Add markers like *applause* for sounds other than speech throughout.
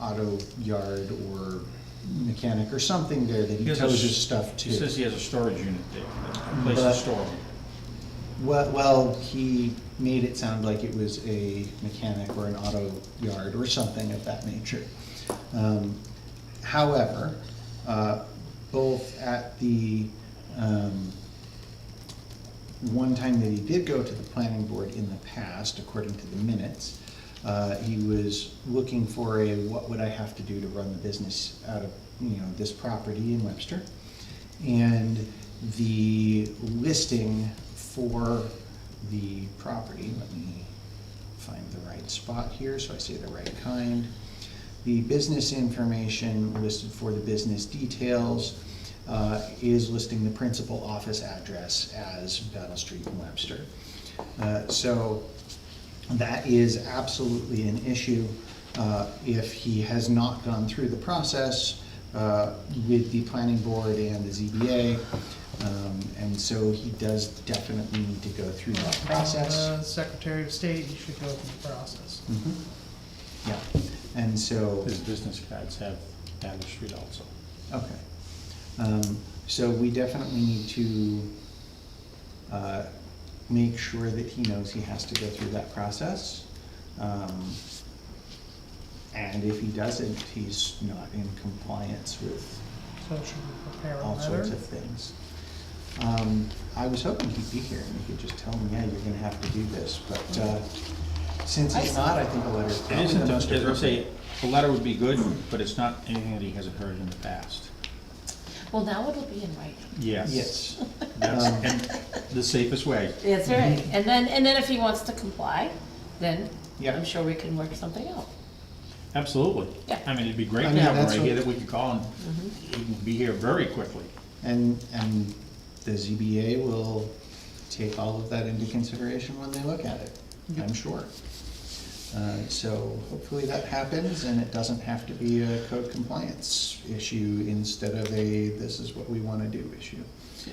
auto yard or mechanic or something there that he He has a tows s- his stuff to. He says he has a storage unit there, a place But- to store them. Well, well, he made it sound like it was a mechanic or an auto yard or something of that nature. Um, However, uh, both at the, um, one time that he did go to the planning board in the past, according to the minutes, uh, he was looking for a, what would I have to do to run the business out of, you know, this property in Webster? And the listing for the property, let me find the right spot here, so I say the right kind. The business information listed for the business details uh, is listing the principal office address as Battle Street in Webster. Uh, So that is absolutely an issue uh, if he has not gone through the process uh, with the planning board and the ZBA. Um, And so he does definitely need to go through that process. Uh, Secretary of State, you should go through the process. Mhm. Yeah, and so, His business cards have Battle Street also. okay. Um, So we definitely need to uh, make sure that he knows he has to go through that process. Um, And if he doesn't, he's not in compliance with So should we prepare a all sorts letter? of things. Um, I was hoping he'd be here and he could just tell me, yeah, you're gonna have to do this, but uh, since he's not, I think a letter is It probably the isn't, most as I say, appropriate. a letter would be good, but it's not anything that he hasn't heard in the past. Well, now it'll be in writing. Yes. Yes. That's, Um, and the safest way. That's right. And then, and then if he wants to comply, then Yeah. I'm sure we can work something out. Absolutely. Yeah. I mean, it'd be great I to mean, have him that's right what- here that we could call and he can be here very quickly. And, and the ZBA will take all of that into consideration when they look at it, I'm sure. Uh, So hopefully that happens and it doesn't have to be a code compliance issue instead of a, this is what we wanna do issue.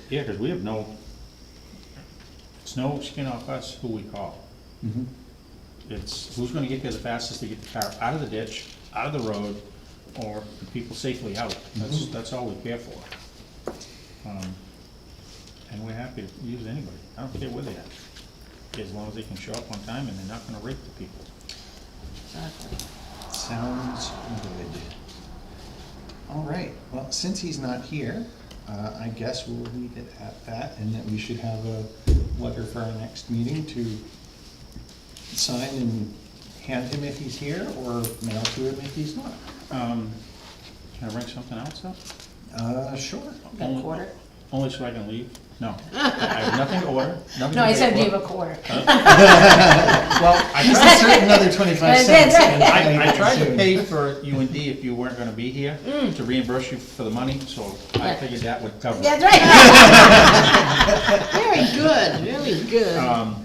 Yeah, because we have no, it's no skin off us who we call. It's who's gonna get there the fastest to get the car out of the ditch, out of the road, or the people safely out. That's, that's all we care for. Um, And we're happy to use anybody. I don't care where they are, as long as they can show up on time and they're not gonna rape the people. Exactly. Sounds good. All right, well, since he's not here, uh, I guess we'll leave it at that and that we should have a letter for our next meeting to sign and hand him if he's here or mail to him if he's not. Um, Can I bring something else up? Uh, *laughs* sure. You Got a Only- quarter? Only so I can leave? No. I have nothing to order, nothing to No, I said pay for. do you have a quarter? Well, I He's tried- certain another twenty-five cents. and *laughs* I, I tried to soon. pay for U and D if you weren't gonna be here, to reimburse you for the money, so I Mm. Yeah. figured that would cover it. That's right. Very good, really good. Um,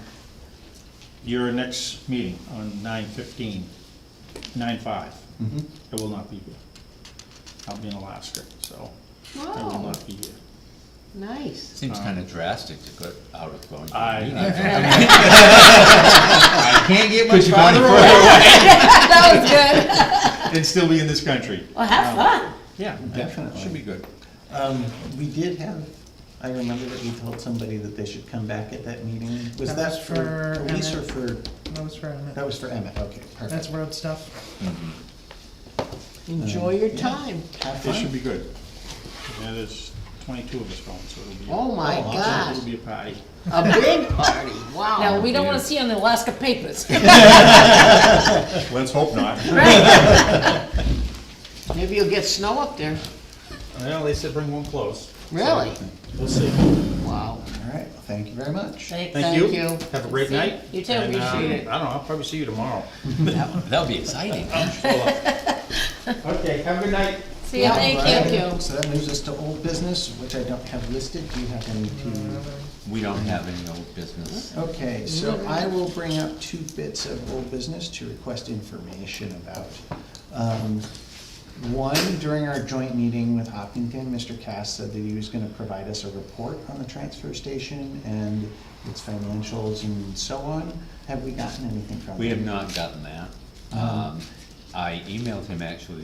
Your next meeting on nine fifteen, nine five, Mhm. I will not be here. I'll be in Alaska, so I will Oh, not be here. nice. Seems kind of drastic to go out of going. to a I- *laughs* meeting. I can't get much Could you go any farther further? away. *laughs* That was good. *laughs* And still be in this country. Well, have fun. Yeah, Definitely. Should be good. Um, we did have, I remember that we told somebody that they should come back at that meeting. Was That was that for for police or Emmett. for, That was for a that minute. was for Emmett, okay, That's perfect. road stuff. Enjoy your Yeah. time. Have It should fun. be good. And there's twenty-two of us going, so it'll be. a- Oh, my Oh, awesome. God, It'll be a party. a big party, Now, wow. we don't wanna see you on the Alaska *laughs* papers. Let's hope not. Right. Maybe you'll get snow up there, Well, they said bring one close. really? We'll see. Wow. All right, well, thank you very much. Thank Thank you. you. Have a great See you. night. You too, And, um, appreciate it. I don't know, I'll probably see you tomorrow. That- *laughs* That'll be exciting. Okay, have a good night. See ya, thank you. Alright, So that moves us to old business, which I don't have listed. Do you have any to? Uh, We don't have any old business. Okay, so Mm-hmm. I will bring up two bits of old business to request information about. Um, One, during our joint meeting with Hopkinton, Mr. Cass said that he was gonna provide us a report on the transfer station and its financials and so on. Have we gotten anything from him? We have not gotten that. Um, I emailed him actually